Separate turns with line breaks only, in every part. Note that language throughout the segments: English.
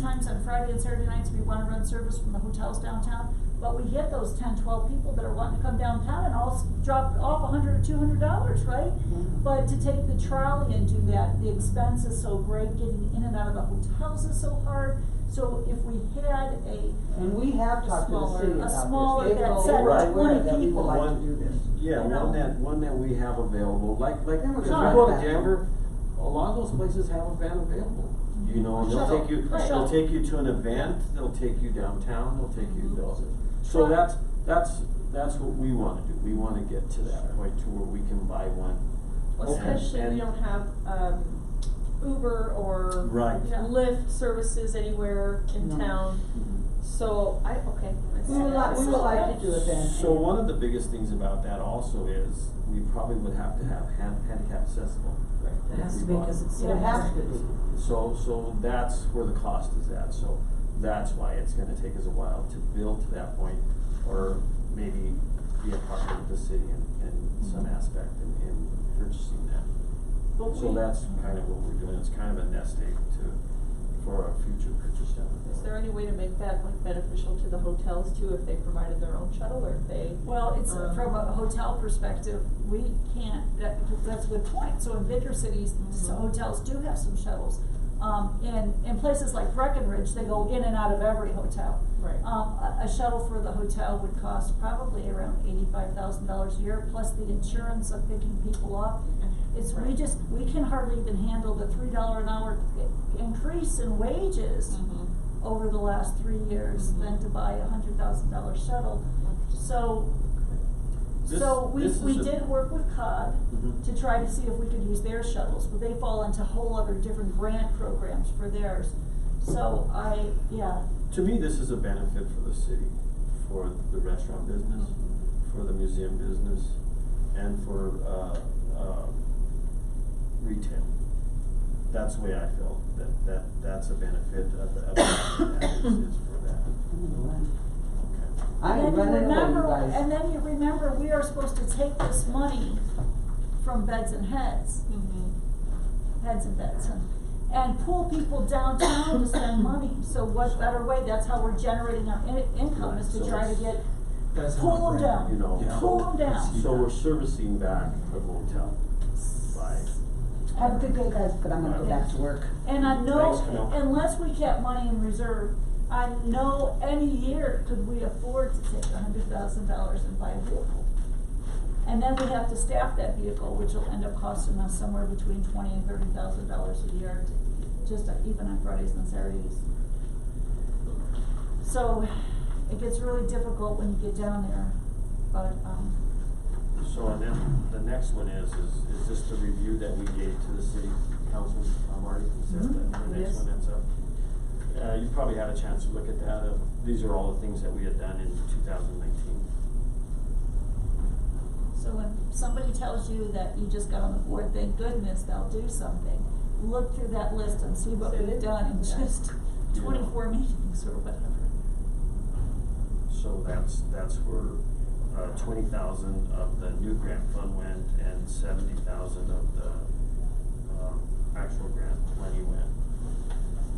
times on Friday and Saturday nights, we wanna run service from the hotels downtown, but we get those 10, 12 people that are wanting to come downtown and all s- drop off a hundred or two hundred dollars, right?
Mm-hmm.
But to take the trolley and do that, the expense is so great, getting in and out of the hotels is so hard, so if we had a,
And we have talked to the
Smaller-
city
a
about this.
smaller
They've
that
all
said
been aware
20
that we would
people.
like to
One-
do this.
Yeah,
You know?
one that, one that we have available, like, like,
That
if
was
you
right
go to
back.
Denver, a lot of those places have a van available. You know, and they'll
Shuttle,
take you,
right.
they'll take you to an event, they'll take you downtown, they'll take you, they
Sure.
so that's, that's, that's what we wanna do, we wanna get to that point to where we can buy one.
Well,
Okay.
especially we
And-
don't have, um, Uber or
Right.
Yeah.
Lyft services anywhere in
No.
town,
Mm-hmm.
so I, okay. I see
We would
that.
like, we would like to do it then.
So one of the biggest things about that also is, we probably would have to have hand, handicap accessible.
It has to be, cause it's.
It has to be.
So, so that's where the cost is at, so that's why it's gonna take us a while to build to that point, or maybe be a partner with the city in, in some
Mm-hmm.
aspect in, in purchasing that.
But
So
we-
that's kind of what we're doing, it's kind of a nest egg to, for our future purchase down the road.
Is there any way to make that like beneficial to the hotels too, if they provided their own shuttle or if they?
Well, it's,
um,
from a hotel perspective, we can't, that, that's a good point, so in bigger cities, s-
Mhm.
hotels do have some shuttles. Um, and, and places like Breckenridge, they go in and out of every hotel.
Right.
Um, a, a shuttle for the hotel would cost probably around eighty-five thousand dollars a year, plus the insurance of picking people up. It's, we
Right.
just, we can hardly even handle the three dollar an hour i- increase in wages
Mhm.
over the last three years
Mhm.
than to buy a hundred thousand dollar shuttle.
Mm-hmm.
So,
This-
so we,
this is
we
a-
did work with COG
Mhm.
to try to see if we could use their shuttles, but they fall into whole other different grant programs for theirs. So I, yeah,
To me, this is a benefit for the city, for the restaurant business, for the museum business, and for, uh, uh, retail. That's the way I feel, that, that, that's a benefit of, of, that is, is for that, okay.
I am
And then you
running away, you
remember,
guys.
and then you remember, we are supposed to take this money from beds and heads,
Mhm.
Mm-hmm.
heads and beds, and, and pull people downtown to spend money. So what better way, that's how we're generating our in- income, is to
Right, so
try to
it's-
get,
That's
pull them down,
You know.
pull them down.
So we're servicing back the motel by,
Have a good day, guys, but I'm gonna go back to work.
And I
Thanks,
know,
Camille.
unless we kept money in reserve, I know any year could we afford to take a hundred thousand dollars and buy a vehicle. And then we have to staff that vehicle, which will end up costing us somewhere between twenty and thirty thousand dollars a year, to- just even on Fridays and Saturdays. So, it gets really difficult when you get down there, but, um,
so and then the next one is, is, is this the review that we gave to the city council, uh, Marty, is that
Mm-hmm.
the, the next
Yes.
one that's up? Uh, you probably had a chance to look at that, uh, these are all the things that we had done in two thousand nineteen.
So when somebody tells you that you just got on the board, thank goodness they'll do something. Look through that list and see what we've done in just
Yeah.
twenty-four meetings or whatever.
So that's, that's where, uh, twenty thousand of the new grant fund went and seventy thousand of the, um, actual grant money went.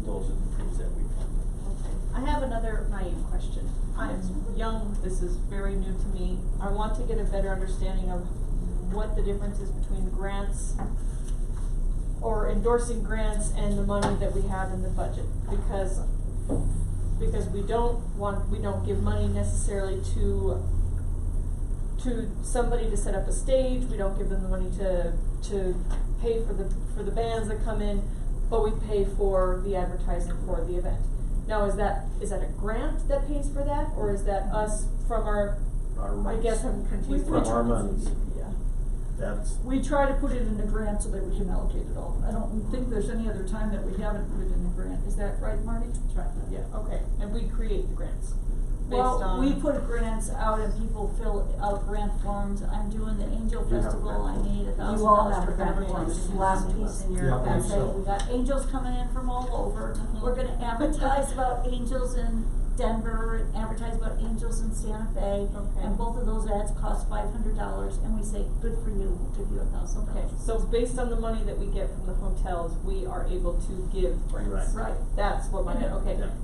Those are the things that we funded.
Okay, I have another naive question. I'm young, this is very new to me. I want to get a better understanding of what the difference is between grants or endorsing grants and the money that we have in the budget, because, because we don't want, we don't give money necessarily to, to somebody to set up a stage, we don't give them the money to, to pay for the, for the bands that come in, but we pay for the advertising for the event. Now, is that, is that a grant that pays for that, or is that us from our,
Our
I
rights.
guess I'm confused.
From
which
our
one is
monies.
it? Yeah.
That's,
We try to put it in a grant so that we can allocate it all. I don't think there's any other time that we haven't put it in a grant. Is that right, Marty?
That's right, yeah, okay, and we create the grants based
Well,
on.
we put grants out and people fill out grant forms. I'm doing the Angel
You have
Festival, I
grant
need a
You
thousand
all
dollars
have
for
a
grant
grant form,
forms.
this last piece in your
Yeah, I
And
think
packet.
say, we got angels coming in from all over, we're gonna advertise about angels in Denver and advertise about Angels in Santa Fe.
Okay.
And both of those ads cost five hundred dollars and we say, good for you, we'll give you a thousand
Okay,
dollars.
so based on the money that we get from the hotels, we are able to give grants.
Right.
Right.
That's what my, okay.
Yeah.